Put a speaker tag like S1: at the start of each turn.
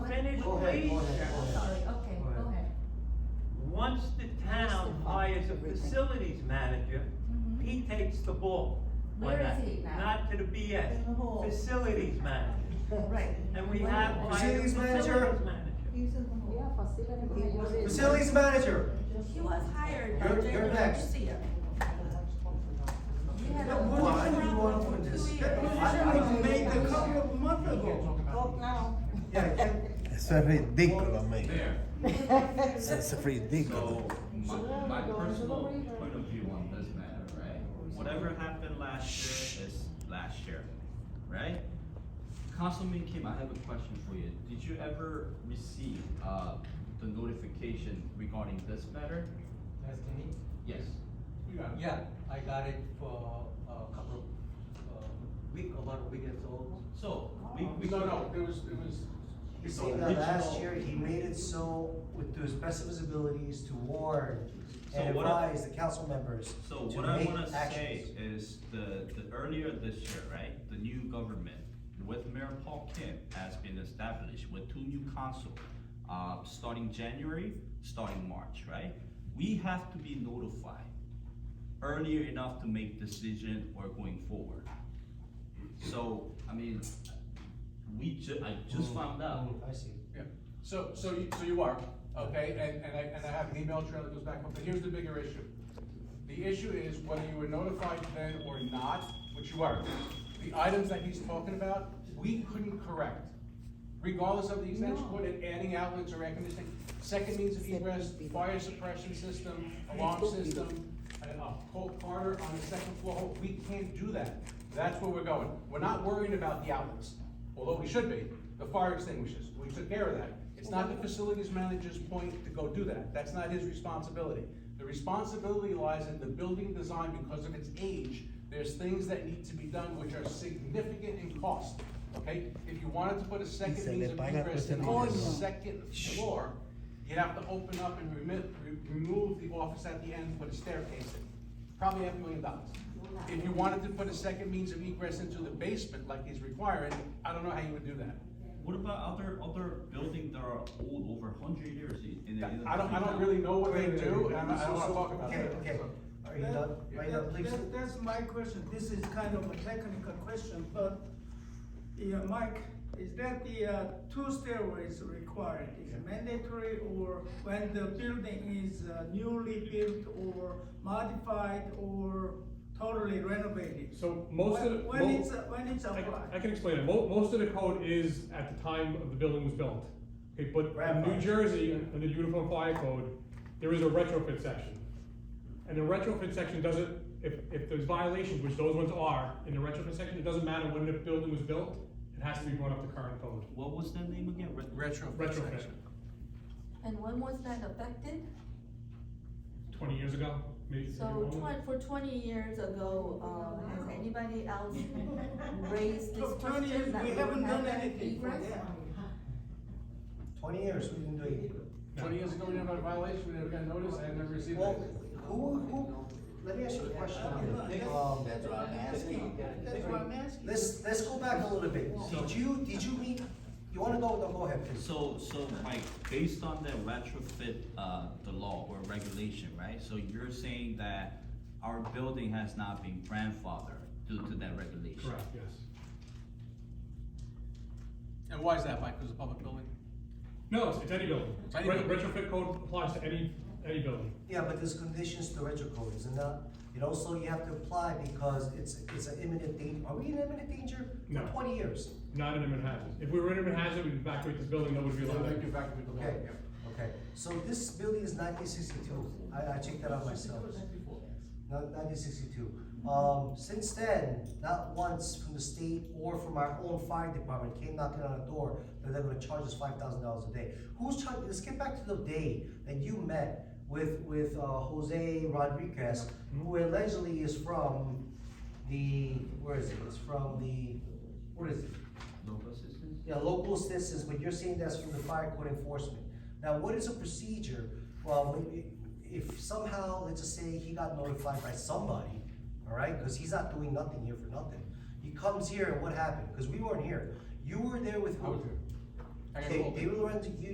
S1: Go ahead, go ahead, go
S2: I'm
S1: ahead.
S2: sorry, okay, go ahead.
S3: Once the town
S2: Mr. Park,
S3: hires a
S2: everything.
S3: facilities manager,
S2: Mhm.
S3: he takes the ball. on
S2: Where
S3: that.
S2: is he now?
S3: Not to the
S4: In the hall.
S3: BS, facilities manager,
S2: Right.
S3: and we
S2: Where
S3: have
S2: is he?
S3: hired a
S1: Facilities manager?
S3: facilities manager.
S4: He's in the hall.
S5: Yeah, facility manager is-
S1: Facilities manager,
S2: She was hired by
S1: You're-
S2: Jay
S1: you're next.
S2: Garcia. You had a
S1: What- what
S2: big
S1: do you
S2: problem
S1: want
S2: for
S1: with
S2: two
S1: this?
S2: years.
S1: I
S2: né?
S1: was made a couple of months ago.
S4: Talk now.
S1: Yeah, can-
S6: Eso es ridículo, amigo.
S7: There,
S6: Eso es
S7: so,
S6: ridículo.
S7: my, my
S5: Go into the
S7: personal
S5: river.
S7: point of view on this matter, right? Whatever happened last year is last year, right? Councilman Kim, I have a question for you. Did you ever receive, uh, the notification regarding this matter?
S8: That's me.
S7: Yes.
S8: Yeah, I got it for a couple of, uh, week, about a week or so.
S7: So, we, we.
S9: No, no, it was, it was.
S1: You see, now last year, he made it so, with to his best of his abilities, to warn
S7: So
S1: and
S7: what I-
S1: advise the council members
S7: So
S1: to
S7: what I
S1: make
S7: wanna say
S1: actions.
S7: is the, the earlier this year, right, the new government with Mayor Paul Kim has been established with two new council, uh, starting January, starting March, right? We have to be notified earlier enough to make decision or going forward. So, I mean, we ju- I just found out,
S1: Mm, I see.
S9: Yeah, so, so you, so you are, okay, and, and I, and I have an email trail that goes back, but here's the bigger issue. The issue is whether you were notified then or not, which you are. The items that he's talking about, we couldn't correct. Regardless of the extension cord and adding outlets or air conditioning, second means of egress, fire suppression system, alarm system, a, a cold Carter on the second floor, we can't do that. That's where we're going. We're not worried about the outlets, although we should be, the fire extinguishers, we took care of that. It's not the facilities manager's point to go do that, that's not his responsibility. The responsibility lies in the building design because of its age, there's things that need to be done which are significant in cost, okay? If you wanted to put a second
S6: se le
S9: means of
S6: paga
S9: egress
S6: con
S9: in on the
S6: servicios.
S9: second floor, you'd have to open up and remit, re- remove the office at the end, put a staircase in, probably half a million dollars. If you wanted to put a second means of egress into the basement like he's requiring, I don't know how you would do that.
S7: what about other, other buildings that are old over hundred years in, in the. in the
S9: I don't, I don't
S7: town?
S9: really know what they
S1: Wait, wait,
S9: do,
S1: wait.
S9: and I don't- I
S1: Uh, So-
S9: don't wanna talk about
S1: Okay,
S9: it.
S1: okay, are you done?
S8: That-
S1: Are you done,
S8: that-
S1: please?
S8: that- That's my question, this is kind of a technical question, but, yeah, Mike, is that the, uh, two stairways required, is it mandatory, or when the building is uh, newly built, or modified, or totally renovated?
S10: So most of the.
S8: When- When
S10: mo-
S8: it's, uh, when it's
S10: I can-
S8: applied?
S10: I can explain it. Mo- most of the code is at the time of the building was built. Okay, but in
S1: Grandfathered.
S10: New Jersey, un- under the Uniform Fire Code, there is a retrofit section. And the retrofit section doesn't, if, if there's violations, which those ones are, in the retrofit section, it doesn't matter when the building was built, it has to be brought up to current code.
S7: What was the name again? Re-
S9: Retro.
S10: Retrofit,
S2: And when was that affected?
S10: twenty years ago, maybe. maybe
S2: So
S10: longer.
S2: twen- for twenty years ago, um, has anybody else raised this
S8: For 20 years,
S2: question that
S8: we
S2: we
S8: haven't
S2: have
S8: done
S2: that
S8: anything for
S2: egress?
S8: that.
S1: Twenty years, we didn't do it.
S9: Twenty years ago, we never had a violation, we never got notice, I never received
S1: Well,
S9: it.
S1: who, who, let me ask you a question. Um,
S8: That's what I'm asking. That's what I'm asking.
S1: Let's, let's go back a little bit. Did you, did you meet, you wanna go, no, go ahead, please.
S7: So, so Mike, based on the retrofit, uh, the law or regulation, right? So you're saying that our building has not been grandfathered due to that regulation?
S10: Correct, yes.
S9: And why is that, Mike, because it's a public building?
S10: No, it's, it's any building.
S9: It's any
S10: Ret-
S9: building.
S10: Retrofit code applies to any, any building.
S1: Yeah, but there's conditions to retro code, isn't that? And also you have to apply because it's, it's an imminent danger. Are we in imminent danger?
S10: No.
S1: For twenty years.
S10: Not in Manhattan. If we were in Manhattan, we'd evacuate this building, that would be
S9: So
S10: allowed.
S9: they get back to the law,
S1: Okay,
S9: yeah.
S1: okay. So this building is nineteen sixty-two. I, I checked that out myself. Nineteen sixty-two. Um, since then, not once from the state or from our own fire department came knocking on our door that they're gonna charge us five thousand dollars a day. Who's charging, let's get back to the day that you met with, with, uh, Jose Rodriguez, who allegedly is from the, where is it? It's from the, what is it?
S7: Local assistance?
S1: Yeah, local assistance, but you're saying that's from the fire code enforcement. Now, what is a procedure, well, when it- if somehow, let's just say he got notified by somebody, all right, because he's not doing nothing here for nothing. He comes here and what happened? Because we weren't here. You were there with
S9: I
S1: who?
S9: was here. I got
S1: They,
S9: pulled.
S1: they will rent to you